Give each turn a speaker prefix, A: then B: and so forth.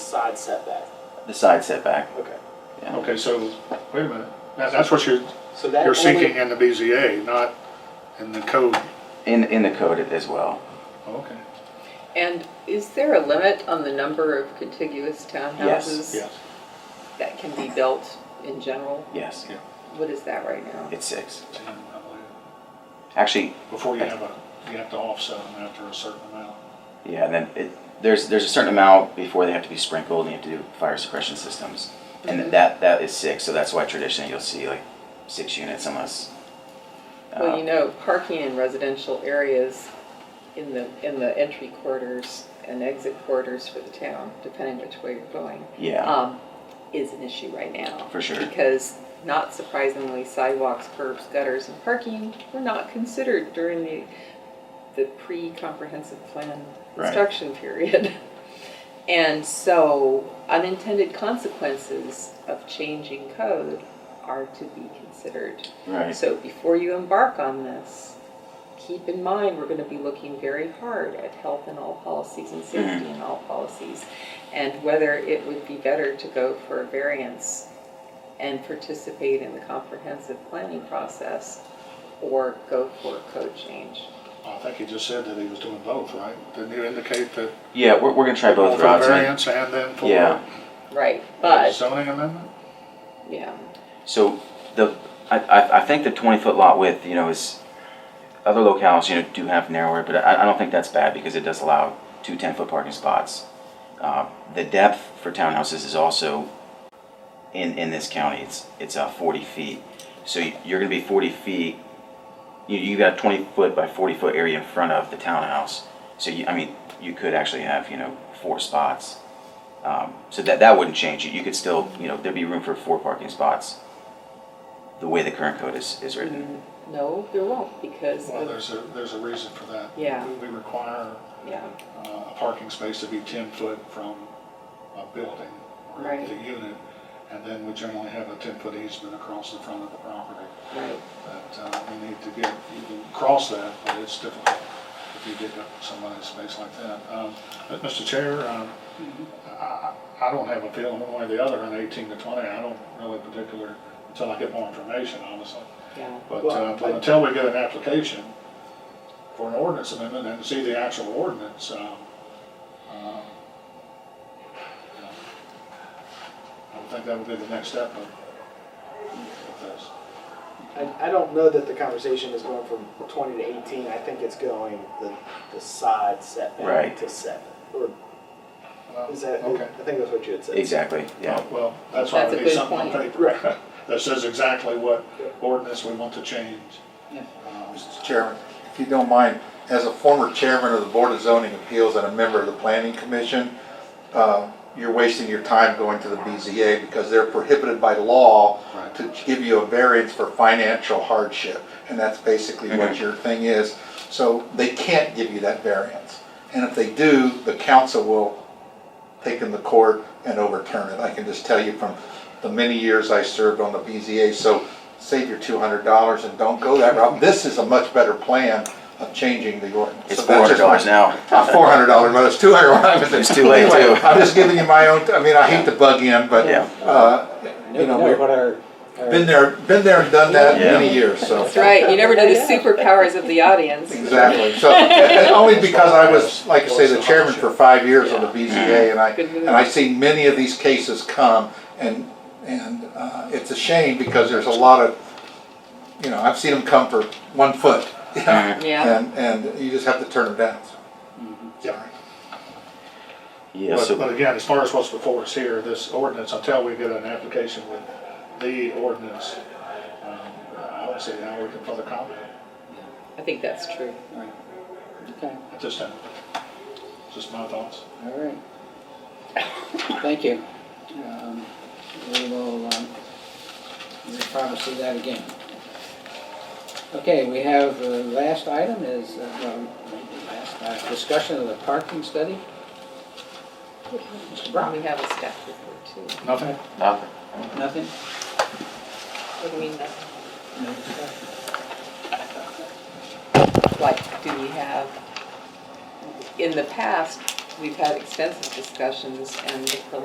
A: side setback.
B: the side setback.
A: Okay.
B: Yeah.
C: Okay, so, wait a minute, that, that's what you're,
A: So that
C: you're
A: only-
C: seeking in the BZA, not in the code.
B: In, in the code as well.
C: Okay.
D: And is there a limit on the number of contiguous townhouses?
C: Yes.
D: That can be built in general?
B: Yes.
D: What is that right now?
B: It's six. Actually,
C: Before you have a, you have to offset them after a certain amount.
B: yeah, and then it, there's, there's a certain amount before they have to be sprinkled and you have to do fire suppression systems. And th- that, that is six, so that's why traditionally you'll see like six units unless. uh,
D: Well, you know, parking in residential areas in the, in the entry quarters and exit quarters for the town, depending which way you're going,
B: Yeah,
D: um, is an issue right now.
B: For sure.
D: Because not surprisingly, sidewalks, curbs, gutters, and parking were not considered during the, the pre-comprehensive plan
B: Right.
D: construction period. And so unintended consequences of changing code are to be considered.
B: uh, right,
D: So before you embark on this, keep in mind, we're gonna be looking very hard at health in all policies and safety in all policies. And whether it would be better to go for a variance and participate in the comprehensive planning process or go for a code change.
C: I think he just said that he was doing both, right? Didn't you indicate that?
B: yeah, we're, we're gonna try both
C: For
B: routes. and-
C: variance and then for.
B: Yeah.
D: Right, but,
C: Zoning amendment?
D: yeah,
B: So the, I, I, I think the twenty foot lot width, you know, is, other locales, you know, do have narrower, but I, I don't think that's bad because it does allow two ten foot parking spots. Uh, the depth for townhouses is also in, in this county, it's, it's uh, forty feet. So you- you're gonna be forty feet, you, you got a twenty foot by forty foot area in front of the townhouse. So you, I mean, you could actually have, you know, four spots. Um, so that, that wouldn't change it. You could still, you know, there'd be room for four parking spots the way the current code is, is
D: Mm-hmm.
B: written.
D: no, there won't because
C: Well,
D: of,
C: there's a, there's a reason for that.
D: Yeah.
C: We require
D: yeah,
C: uh, a parking space to be ten foot from a building or
D: Right.
C: the unit. And then we generally have a ten foot easement across the front of the property
D: right.
C: that uh, we need to get, you can cross that, but it's difficult if you dig up somebody's space like that. Um, But Mr. Chair, um, I, I I don't have a feeling one way or the other on eighteen to twenty. I don't really particular, until I get more information, honestly.
D: Yeah,
C: But,
A: Well,
C: uh, but until we get an application for an ordinance amendment and see the actual ordinance, um, um, you know, I would think that would be the next step of of this.
A: I, I don't know that the conversation is going from twenty to eighteen, I think it's going the, the side setback
B: Right.
A: to seven, or
C: Well,
A: is that,
C: Okay.
A: I think that's what you had said.
B: Exactly, yeah.
C: Oh, Well, that's why
D: That's
C: we
D: a
C: need
D: good
C: something on
D: point.
C: paper that says exactly what ordinance we want to change. Um,
E: Mr. Chairman, if you don't mind, as a former chairman of the Board of Zoning Appeals and a member of the Planning Commission, uh, you're wasting your time going to the BZA because they're prohibited by law
C: Right.
E: to give you a variance for financial hardship. And that's basically what your thing is. So they can't give you that variance. And if they do, the council will take them to court and overturn it. I can just tell you from the many years I served on the BZA, so save your two hundred dollars and don't go that route. This is a much better plan of changing the ordinance.
B: It's four hundred dollars now.
E: Four hundred dollar, but it's two hundred when I was in.
B: It's too late,
E: Anyway,
B: too.
E: I'm just giving you my own, I mean, I hate to bug in, but,
B: Yeah.
E: uh, you know, we've been there, been there and done that
B: Yeah.
E: many years, so.
D: that's right, you never know the superpowers of the audience.
E: Exactly, so, and only because I was, like I say, the chairman for five years on the BZA, and I,
D: Good move.
E: and I see many of these cases come, and, and, uh, it's a shame, because there's a lot of, you know, I've seen them come for one foot, you know,
D: Yeah.
E: and, and you just have to turn them down, so.
C: Yeah.
B: Yeah,
C: But,
B: so,
C: but again, as far as what's before us here, this ordinance, until we get an application with the ordinance, um, I don't see how we can further comment
D: I think that's true.
F: Okay,
C: at this time. Just my thoughts.
F: all right. Thank you. Um, We will, um, we'll probably see that again. Okay, we have, the last item is, uh, well, maybe last, uh, discussion of the parking study. Mr.
D: And
F: Brown,
D: we have a staff report too.
C: Nothing?
B: nothing.
F: nothing?
D: What do you mean that?
F: No discussion.
D: Like, do we have, in the past, we've had extensive discussions and the